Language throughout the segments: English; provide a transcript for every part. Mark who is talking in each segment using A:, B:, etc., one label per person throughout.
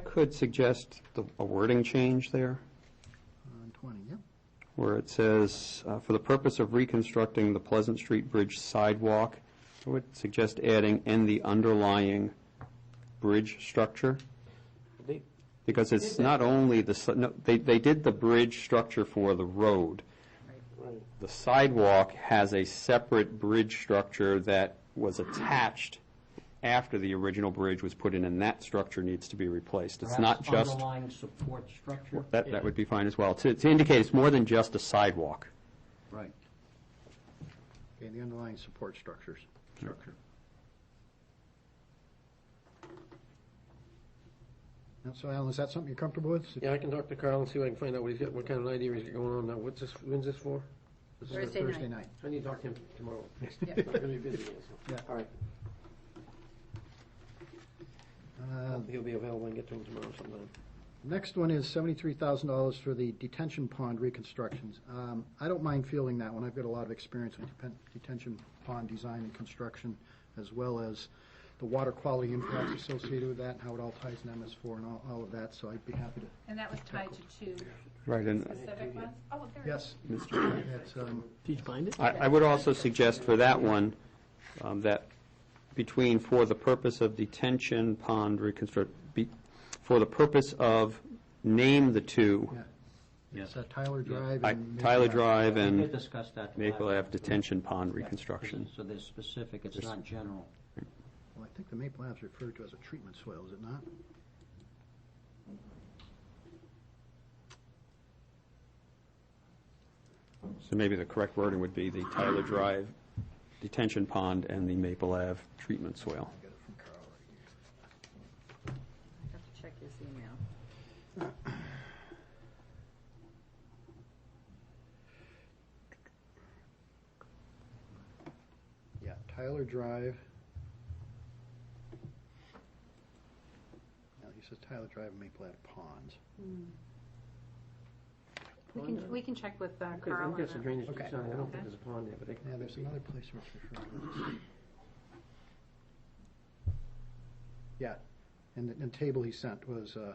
A: could suggest the- a wording change there,
B: On 20, yep.
A: where it says, uh, "For the purpose of reconstructing the Pleasant Street Bridge sidewalk," I would suggest adding "and the underlying bridge structure,"
C: They-
A: because it's not only the, si- no, they, they did the bridge structure for the road.
C: right.
A: The sidewalk has a separate bridge structure that was attached after the original bridge was put in, and that structure needs to be replaced. It's not
C: Perhaps
A: just,
C: Underlying support structure.
A: that, that would be fine as well. To, to indicate it's more than just a sidewalk.
B: Right. Okay, the underlying support structures. Structure. Now, so Alan, is that something you're comfortable with?
D: Yeah, I can talk to Carl and see what I can find out what he's got, what kind of idea he's got going on now. What's this, when's this for? This is-
E: Thursday night.
B: Thursday night.
D: I need to talk to him tomorrow.
E: Yeah.
D: I'm gonna be busy, so.
B: Yeah.
D: All right,
B: Uh,
D: Um, he'll be available and get to him tomorrow sometime.
B: Next one is seventy-three thousand dollars for the detention pond reconstructions. Um, I don't mind fielding that one. I've got a lot of experience with depen- detention pond design and construction, as well as the water quality impacts associated with that, and how it all ties in MS four and all, all of that, so I'd be happy to.
E: And that was tied to two
A: Right, and
E: specific ones? Oh, there it is.
B: Yes, that's, um,
D: Did you find it?
A: I, I would also suggest for that one, um, that between for the purpose of detention pond reconstruct, be, for the purpose of, name the two,
B: yeah.
C: Yeah.
B: It's uh, Tyler Drive
A: I-
B: and.
A: Tyler
B: Maple Ave.
A: Drive
C: We
A: and
C: did discuss that.
A: Maple
C: last-
A: Ave detention pond reconstruction.
C: So they're specific, it's not general.
B: Well, I think the Maple Ave is referred to as a treatment soil, is it not?
A: So maybe the correct wording would be the Tyler Drive detention pond and the Maple Ave treatment soil.
B: I got it from Carl right here.
E: I have to check his email.
B: Yeah, Tyler Drive. No, he says Tyler Drive and Maple Ave Ponds.
E: We can, we can check with uh,
D: Because
E: Carl
D: I've
E: on
D: got some
E: that.
D: drainage
B: Okay.
D: to sign. I don't think there's a pond there, but they.
B: Yeah, there's another place where it's referred to. Yeah, and the, and table he sent was, uh,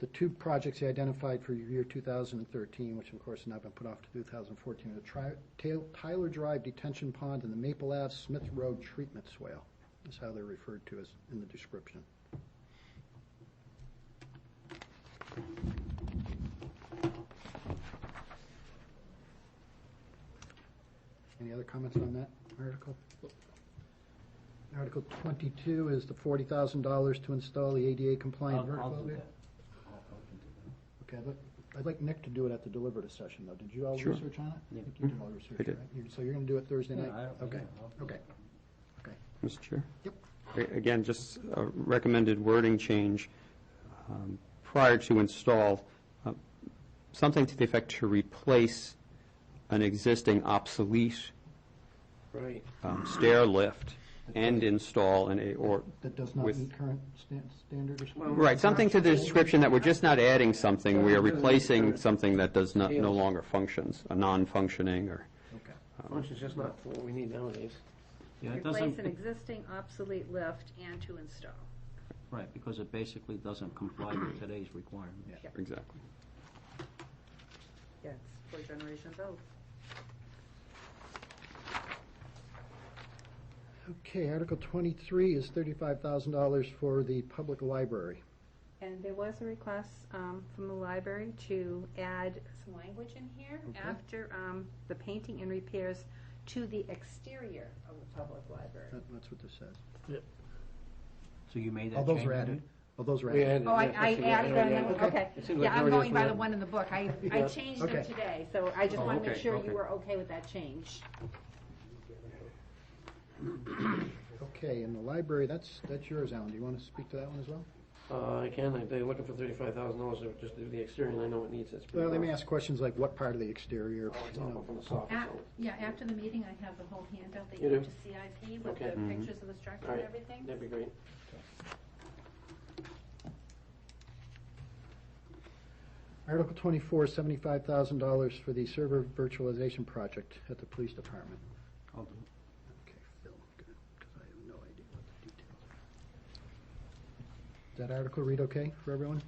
B: the two projects he identified for year two thousand and thirteen, which of course have now been put off to two thousand and fourteen, the tri, Tail- Tyler Drive Detention Pond and the Maple Ave Smith Road Treatment Swale, is how they're referred to as, in the description. Any other comments on that article? Article twenty-two is the forty thousand dollars to install the ADA compliant
C: I'll-
B: vertical
C: I'll do
B: elevator.
C: that. I'll- I'll do that.
B: Okay, I'd like- I'd like Nick to do it at the deliberative session, though. Did you all
A: Sure.
B: research on it?
C: Yeah.
B: I think you did all the research,
A: I did.
B: right? You- So you're going to do it Thursday night?
C: Yeah, I don't-
B: Okay,
C: yeah, I'll-
B: okay.
A: Mr. Chair?
B: Yep.
A: A- Again, just a recommended wording change um, prior to install, uh, something to the effect to replace an existing obsolete
D: Right.
A: um, stair lift and install an, a- or,
B: That does not
A: With-
B: meet current stan- standard or something?
A: right, something to the description that we're just not adding something, we are replacing something that does not, no longer functions, a non-functioning or.
B: Okay.
D: Function's just not for what we need nowadays.
C: Yeah, it
E: Replace an
C: doesn't,
E: existing obsolete lift and to install.
C: right, because it basically doesn't comply with today's requirements.
B: Yeah.
A: Exactly.
E: Yes, four generations old.
B: Okay, Article twenty-three is thirty-five thousand dollars for the public library.
E: And there was a request um, from the library to add some language in here
B: Okay.
E: after um, the painting and repairs to the exterior of the public library.
B: That- That's what this says.
C: So you made that
B: All
C: change?
B: those are
C: you
B: added.
C: did?
B: All those are
D: We
B: added.
D: added
E: Oh, I,
D: that,
E: I
D: that's what we
E: added
D: added.
E: them, okay.
D: It seems like
E: Yeah, I'm
D: everybody else
E: going by
D: would
E: the
D: have-
E: one in the book. I, I
D: Yeah.
E: changed them
B: Okay.
E: today, so I just
C: Oh,
E: want to make
C: okay,
E: sure
C: okay.
E: you were okay with that change.
B: Okay, and the library, that's, that's yours, Alan. Do you want to speak to that one as well?
D: Uh, I can, if they're looking for thirty-five thousand dollars, they would just do the exterior, and I know it needs, it's. pretty
B: Well, they may
D: rough.
B: ask questions like what part of the exterior,
D: Oh, it's
B: you
D: awful
B: know.
D: from the soft,
E: Af-
D: so-
E: Yeah, after the meeting, I have the whole handout that
D: You
E: you
D: do?
E: have to CIP with
D: Okay.
E: the pictures of the structure
D: All
E: and
D: right.
E: everything.
D: That'd be great.
B: Article twenty-four, seventy-five thousand dollars for the server virtualization project at the police department.
C: I'll do it.
B: Okay, Phil, good, because I have no idea what the details that article read okay for everyone?